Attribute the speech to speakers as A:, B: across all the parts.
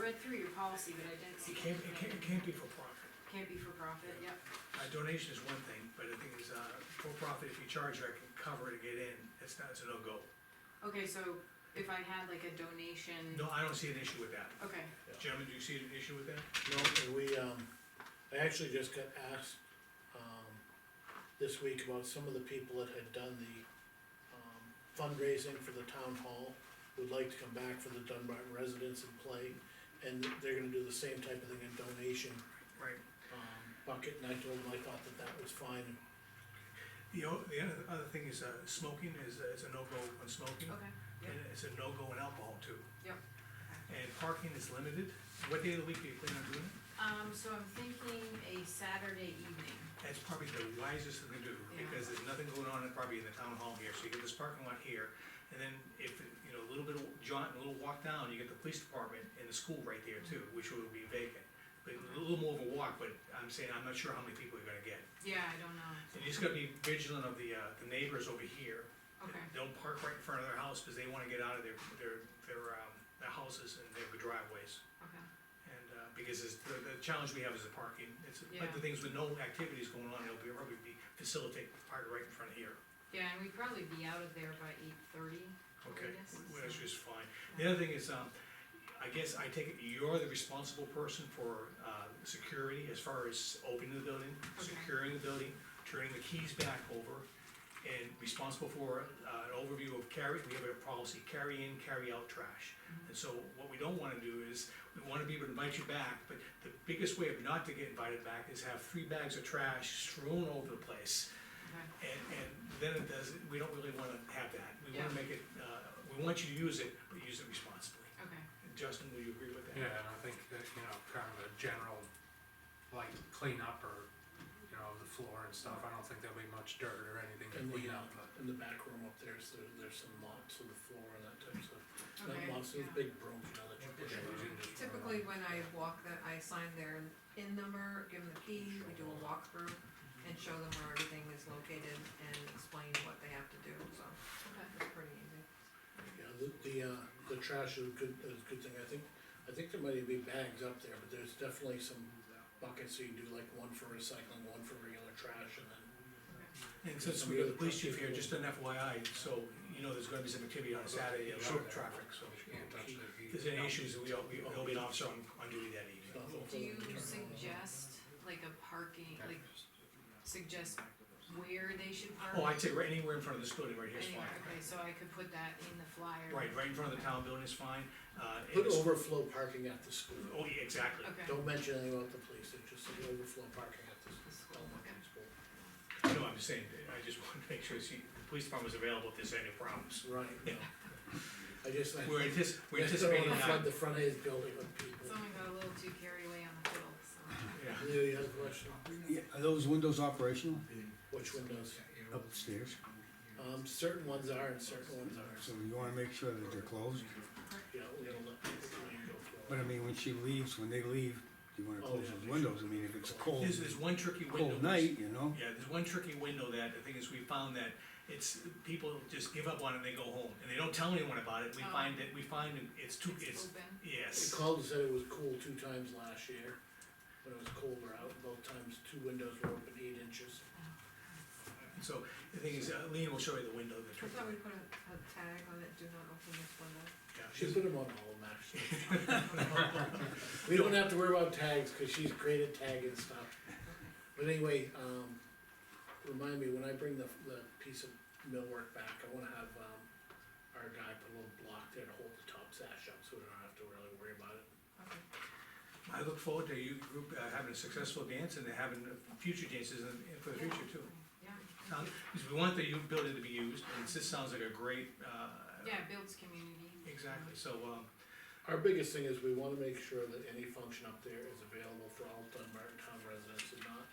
A: read through your policy, but I didn't see.
B: It can't, it can't, it can't be for profit.
A: Can't be for profit, yep,
B: A donation is one thing, but the thing is, uh, for profit, if you charge, I can cover it and get in, it's not, it's a no-go.
A: okay, so if I had like a donation.
B: No, I don't see an issue with that.
A: Okay,
B: Gentlemen, do you see an issue with that?
C: No, and we, um, I actually just got asked, um, this week about some of the people that had done the, um, fundraising for the town hall, would like to come back for the Dunbarton residents and play, and they're gonna do the same type of thing, a donation,
B: Right.
C: um, bucket, and I told them I thought that that was fine, and
B: The o the other, other thing is, uh, smoking is, is a no-go on smoking.
A: okay,
B: And it's a no-go on alcohol too.
A: Yep.
B: And parking is limited. What day of the week do you plan on doing it?
A: um, so I'm thinking a Saturday evening,
B: That's probably the wisest thing to do, because there's nothing going on in- probably in the town hall here, so you get this parking lot here. And then if, you know, a little bit of jaunt, a little walk down, you get the police department and the school right there too, which will be vacant. But a little more of a walk, but I'm saying, I'm not sure how many people you're gonna get.
A: yeah, I don't know,
B: And you just gotta be vigilant of the, uh, the neighbors over here.
A: okay,
B: Don't park right in front of their house, because they wanna get out of their, their, their, um, their houses and their driveways.
A: okay,
B: And, uh, because it's, the, the challenge we have is the parking, it's, like the
A: Yeah.
B: things with no activities going on, it'll be, probably be facilitate park right in front of here.
A: yeah, and we'd probably be out of there by eight thirty.
B: Okay, wh- which is fine. The other thing is, um, I guess I take it you're the responsible person for, uh, security as far as opening the building,
A: Okay.
B: securing the building, turning the keys back over, and responsible for, uh, an overview of carry, we have a policy, carry in, carry out trash. And so what we don't wanna do is, we wanna be able to invite you back, but the biggest way of not to get invited back is have three bags of trash strewn over the place.
A: Okay,
B: And, and then it does, we don't really wanna have that, we wanna
A: Yeah.
B: make it, uh, we want you to use it, but use it responsibly.
A: okay,
B: Justin, will you agree with that?
D: Yeah, and I think that, you know, kind of a general, like cleanup or, you know, the floor and stuff, I don't think there'll be much dirt or anything to
C: in the,
D: clean
C: uh,
D: up, but.
C: in the back room up there, so there's some mops on the floor and that type of stuff.
A: Okay,
C: Not mops, those
A: yeah.
C: big brooms, you know, that you push
D: Yeah, you
C: around.
D: can just run
E: Typically,
D: around.
E: when I walk that, I assign their in number, give them the key, we do a walkthrough and show them where everything is located and explain what they have to do, so
A: okay,
E: it's pretty easy.
C: Yeah, the, the, uh, the trash is a good, is a good thing, I think, I think there might be bags up there, but there's definitely some buckets, so you do like one for recycling, one for regular trash, and then.
B: And since we got the police chief here, just an FYI, so, you know, there's gonna be some activity on Saturday, a lot of traffic, so.
D: You can't touch the heat.
B: If there's uh, any issues, we'll, we'll be an officer on, on duty that evening.
C: stuff over
A: do you
C: the internal.
A: suggest like a parking, like suggest where they should park?
B: Oh, I'd say right anywhere in front of this building right here is
A: Anywhere,
B: fine.
A: okay, so I could put that in the flyer.
B: Right, right in front of the town building is fine, uh,
C: Put
B: it's-
C: overflow parking at the school,
B: oh, yeah, exactly.
A: Okay.
C: don't mention anything about the police, it's just the overflow parking at the
A: The school,
C: elementary
A: okay.
C: school.
B: No, I'm just saying, I just wanted to make sure, see, the police department is available if there's any problems.
C: Right, no. I just, I,
B: We're antici- we're
C: I just don't
B: anticipating
C: wanna
B: that.
C: flood the front of his building with people.
A: Someone got a little too carried away on the fiddle, so.
B: Yeah.
C: Leo, you have a question,
F: Yeah, are those windows operational
C: which windows?
F: upstairs?
C: Um, certain ones are and certain ones aren't,
F: So you wanna make sure that they're closed?
C: you know, we're gonna let people come and go for it.
F: But I mean, when she leaves, when they leave, you wanna
C: Oh,
F: close
C: yeah,
F: those
C: they
F: windows, I mean, if it's a cold,
B: There's, there's one tricky window.
F: cold night, you know?
B: Yeah, there's one tricky window that, the thing is, we found that it's, people just give up on it and they go home, and they don't tell anyone about it, we
A: Oh.
B: find that, we find that it's too, it's,
A: Open,
C: They
B: yes.
C: called and said it was cool two times last year, when it was colder out, both times two windows were open eight inches.
B: So, the thing is, uh, Lean will show you the window, the
E: I
B: tricky,
E: thought we put a, a tag on it, do not open this window.
B: yeah.
C: She
B: she's-
C: put them on all of them, actually. We don't have to worry about tags, cause she's great at tagging stuff. But anyway, um, remind me, when I bring the, the piece of millwork back, I wanna have, um, our guy put a little block there to hold the top sash up, so we don't have to really worry about it.
E: Okay.
B: I look forward to you group uh, having a successful dance and having future dances and and for the
A: Yeah.
B: future too.
A: yeah,
B: Um, Because we want the u- building to be used, and this sounds like a great, uh,
A: yeah, it builds community.
B: exactly, so, um,
C: Our biggest thing is we wanna make sure that any function up there is available for all Dunbarton town residents and not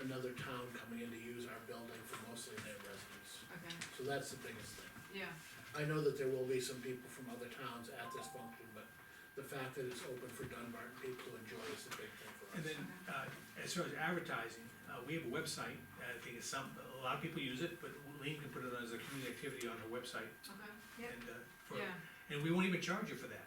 C: another town coming in to use our building for mostly their residents.
A: Okay,
C: So that's the biggest thing.
A: yeah,
C: I know that there will be some people from other towns at this function, but the fact that it's open for Dunbarton people to enjoy is a big thing for us.
B: And then, uh, as far as advertising, uh, we have a website, I think it's some, a lot of people use it, but Lean can put it on as a community activity on her website.
A: okay,
E: Yep.
B: And, uh, for,
A: yeah,
B: and we won't even charge you for that,